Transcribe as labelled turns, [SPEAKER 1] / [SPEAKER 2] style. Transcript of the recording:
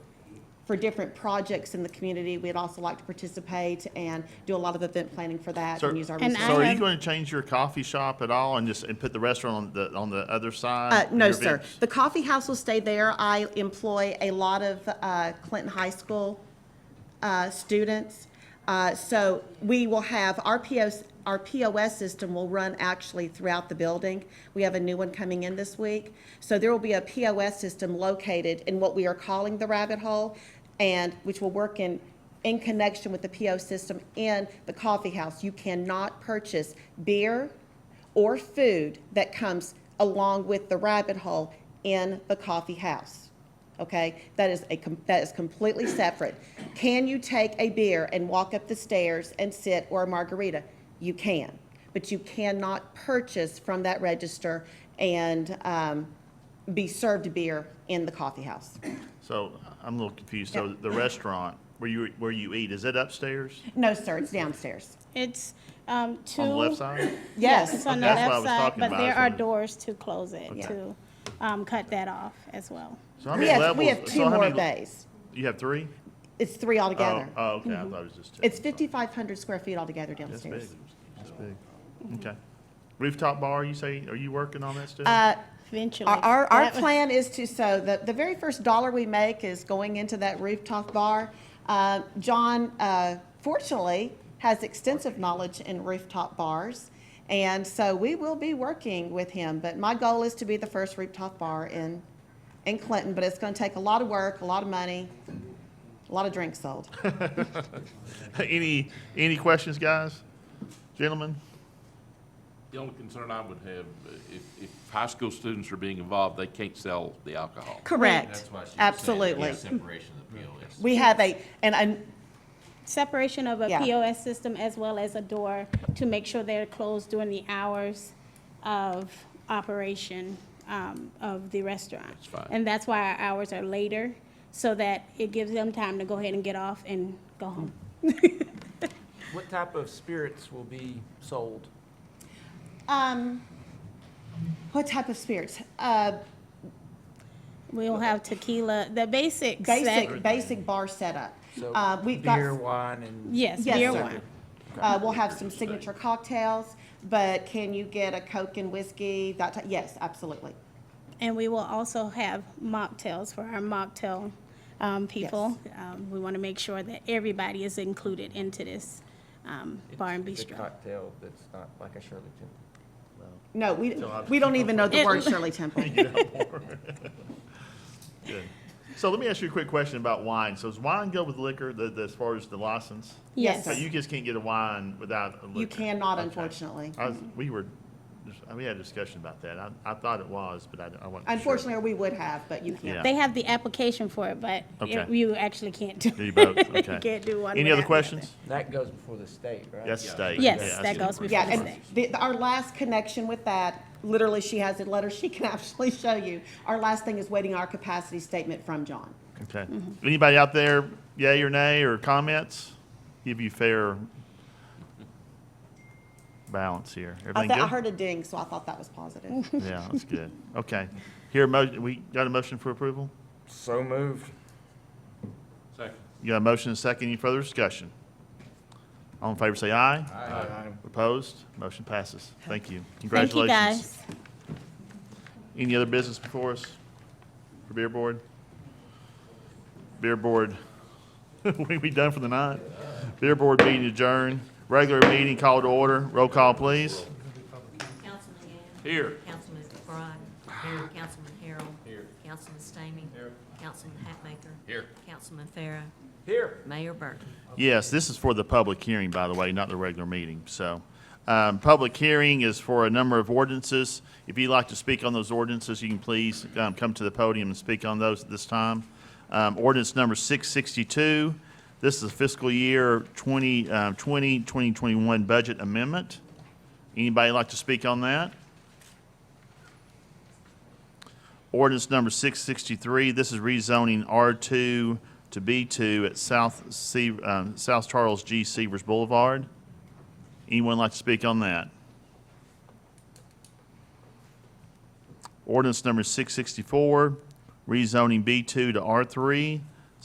[SPEAKER 1] for different projects in the community. We'd also like to participate and do a lot of event planning for that
[SPEAKER 2] So,
[SPEAKER 1] and use our
[SPEAKER 2] so
[SPEAKER 3] And I
[SPEAKER 1] resources.
[SPEAKER 2] are you
[SPEAKER 3] have-
[SPEAKER 2] going to change your coffee shop at all and just, and put the restaurant on the, on the other side?
[SPEAKER 1] Uh,
[SPEAKER 2] of
[SPEAKER 1] no,
[SPEAKER 2] your
[SPEAKER 1] sir.
[SPEAKER 2] business?
[SPEAKER 1] The coffee house will stay there. I employ a lot of uh, Clinton High School uh, students. Uh, So we will have, our POS, our POS system will run actually throughout the building. We have a new one coming in this week. So there will be a POS system located in what we are calling the rabbit hole and which will work in, in connection with the PO system in the coffee house. You cannot purchase beer or food that comes along with the rabbit hole in the coffee house. Okay, that is a, com- that is completely separate. Can you take a beer and walk up the stairs and sit, or a margarita? You can, but you cannot purchase from that register and um, be served beer in the coffee house.
[SPEAKER 2] So I'm a little confused. So the restaurant, where you, where you eat, is it upstairs?
[SPEAKER 1] No, sir, it's downstairs.
[SPEAKER 3] It's um, two.
[SPEAKER 2] On the left side?
[SPEAKER 1] Yes.
[SPEAKER 3] It's on the
[SPEAKER 2] That's what I
[SPEAKER 3] left
[SPEAKER 2] was
[SPEAKER 3] side,
[SPEAKER 2] talking
[SPEAKER 3] but
[SPEAKER 2] about.
[SPEAKER 3] there
[SPEAKER 2] It's
[SPEAKER 3] are
[SPEAKER 2] on the-
[SPEAKER 3] doors to close it,
[SPEAKER 1] Okay.
[SPEAKER 3] to um, cut that off as well.
[SPEAKER 2] So how
[SPEAKER 1] We
[SPEAKER 2] many
[SPEAKER 1] have, we
[SPEAKER 2] levels-
[SPEAKER 1] have
[SPEAKER 2] so
[SPEAKER 1] two
[SPEAKER 2] how
[SPEAKER 1] more
[SPEAKER 2] many-
[SPEAKER 1] bays.
[SPEAKER 2] You have three?
[SPEAKER 1] It's three
[SPEAKER 2] Oh,
[SPEAKER 1] altogether.
[SPEAKER 2] Oh, okay, I thought it was just two.
[SPEAKER 1] Mm-hmm. It's 5,500 square feet altogether
[SPEAKER 2] That's big.
[SPEAKER 1] downstairs.
[SPEAKER 2] That's big. Okay. Rooftop bar, you say, are you working on that still?
[SPEAKER 1] Uh,
[SPEAKER 3] Eventually.
[SPEAKER 1] Our, our, our
[SPEAKER 3] That was-
[SPEAKER 1] plan is to, so the, the very first dollar we make is going into that rooftop bar. Uh, John, uh, fortunately, has extensive knowledge in rooftop bars. And so we will be working with him, but my goal is to be the first rooftop bar in, in Clinton, but it's gonna take a lot of work, a lot of money, a lot of drinks sold.
[SPEAKER 2] Any, any questions, guys? Gentlemen?
[SPEAKER 4] The only concern I would have, uh, if, if high school students are being involved, they can't sell the alcohol.
[SPEAKER 1] Correct,
[SPEAKER 5] That's why she was saying
[SPEAKER 1] absolutely.
[SPEAKER 5] the Separation of the POS.
[SPEAKER 1] We have a, and, and
[SPEAKER 3] Separation of a
[SPEAKER 1] Yeah.
[SPEAKER 3] POS system as well as a door to make sure they're closed during the hours of operation um, of the restaurant. That's
[SPEAKER 4] fine.
[SPEAKER 3] And that's why our hours are later, so that it gives them time to go ahead and get off and go home.
[SPEAKER 6] What type of spirits will be sold?
[SPEAKER 1] Um, what type of spirits? Uh,
[SPEAKER 3] We'll have tequila, the basics. that-
[SPEAKER 1] basic, basic bar setup.
[SPEAKER 6] So
[SPEAKER 1] Uh, we've
[SPEAKER 6] Beer,
[SPEAKER 1] got,
[SPEAKER 6] wine, and?
[SPEAKER 3] Yes,
[SPEAKER 1] Yes,
[SPEAKER 3] beer
[SPEAKER 1] sir.
[SPEAKER 3] wine.
[SPEAKER 1] uh, we'll have some signature cocktails, but can you get a Coke and whiskey? That, ti- yes, absolutely.
[SPEAKER 3] And we will also have mocktails for our mocktail um, people. Um, We want to make sure that everybody is included into this um, bar and
[SPEAKER 6] It's a
[SPEAKER 3] bistro.
[SPEAKER 6] cocktail that's not like a Shirley Temple.
[SPEAKER 1] No, we, we don't even know the
[SPEAKER 3] It-
[SPEAKER 1] word Shirley Temple.
[SPEAKER 2] Good. So let me ask you a quick question about wine. So does wine go with liquor, the, the, as far as the license?
[SPEAKER 1] Yes,
[SPEAKER 3] Yes.
[SPEAKER 2] So you just can't get a wine without a liquor?
[SPEAKER 1] You cannot,
[SPEAKER 2] Okay.
[SPEAKER 1] unfortunately.
[SPEAKER 2] I was, we were, we had a discussion about that. I, I thought it was, but I, I wasn't sure.
[SPEAKER 1] Unfortunately, we would have, but you
[SPEAKER 2] Yeah.
[SPEAKER 1] can't.
[SPEAKER 3] They have the application for it, but it-
[SPEAKER 2] Okay.
[SPEAKER 3] you actually can't do.
[SPEAKER 2] Do you both?
[SPEAKER 3] You
[SPEAKER 2] Okay.
[SPEAKER 3] can't do one
[SPEAKER 2] Any other
[SPEAKER 3] without the other.
[SPEAKER 2] questions?
[SPEAKER 6] That goes before the state, right?
[SPEAKER 2] That's state.
[SPEAKER 3] Yes,
[SPEAKER 2] Yeah, that's
[SPEAKER 3] that
[SPEAKER 2] good.
[SPEAKER 3] goes before
[SPEAKER 1] Yeah,
[SPEAKER 3] the
[SPEAKER 1] and
[SPEAKER 3] state.
[SPEAKER 1] the, the- our last connection with that, literally, she has a letter she can actually show you. Our last thing is waiting our capacity statement from John.
[SPEAKER 2] Okay. Anybody out there, yay or nay, or comments? Give you fair balance here.
[SPEAKER 1] I
[SPEAKER 2] Everything
[SPEAKER 1] thought, I
[SPEAKER 2] good?
[SPEAKER 1] heard a ding, so I thought that was positive.
[SPEAKER 2] Yeah, that's good. Okay. Here, mo, we got a motion for approval?
[SPEAKER 6] So moved.
[SPEAKER 4] Second.
[SPEAKER 2] You got a motion and a second. Any further discussion? All in favor, say aye.
[SPEAKER 6] Aye.
[SPEAKER 2] Opposed? Motion passes. Thank you.
[SPEAKER 3] Thank you,
[SPEAKER 2] Congratulations.
[SPEAKER 3] guys.
[SPEAKER 2] Any other business before us for Beer Board? Beer Board, we we done for the night? Beer Board meeting adjourned. Regular meeting called to order. Roll call, please.
[SPEAKER 7] Councilman Gann.
[SPEAKER 4] Here.
[SPEAKER 7] Councilman McBride. Here. Councilman Harrell. Here. Councilman Stamey. Here. Councilman Hatmaker.
[SPEAKER 4] Here.
[SPEAKER 7] Councilman Farah.
[SPEAKER 6] Here.
[SPEAKER 7] Mayor Burton.
[SPEAKER 2] Yes, this is for the public hearing, by the way, not the regular meeting, so. Um, public hearing is for a number of ordinances. If you'd like to speak on those ordinances, you can please, um, come to the podium and speak on those at this time. Um, ordinance number six sixty-two, this is fiscal year 20 uh, 20, 2021 budget amendment. Anybody like to speak on that? Ordinance number 663, this is rezoning R2 to B2 at South Se- um, South Charles G. Severs Boulevard. Anyone like to speak on that? Ordinance number 664, rezoning B2 to R3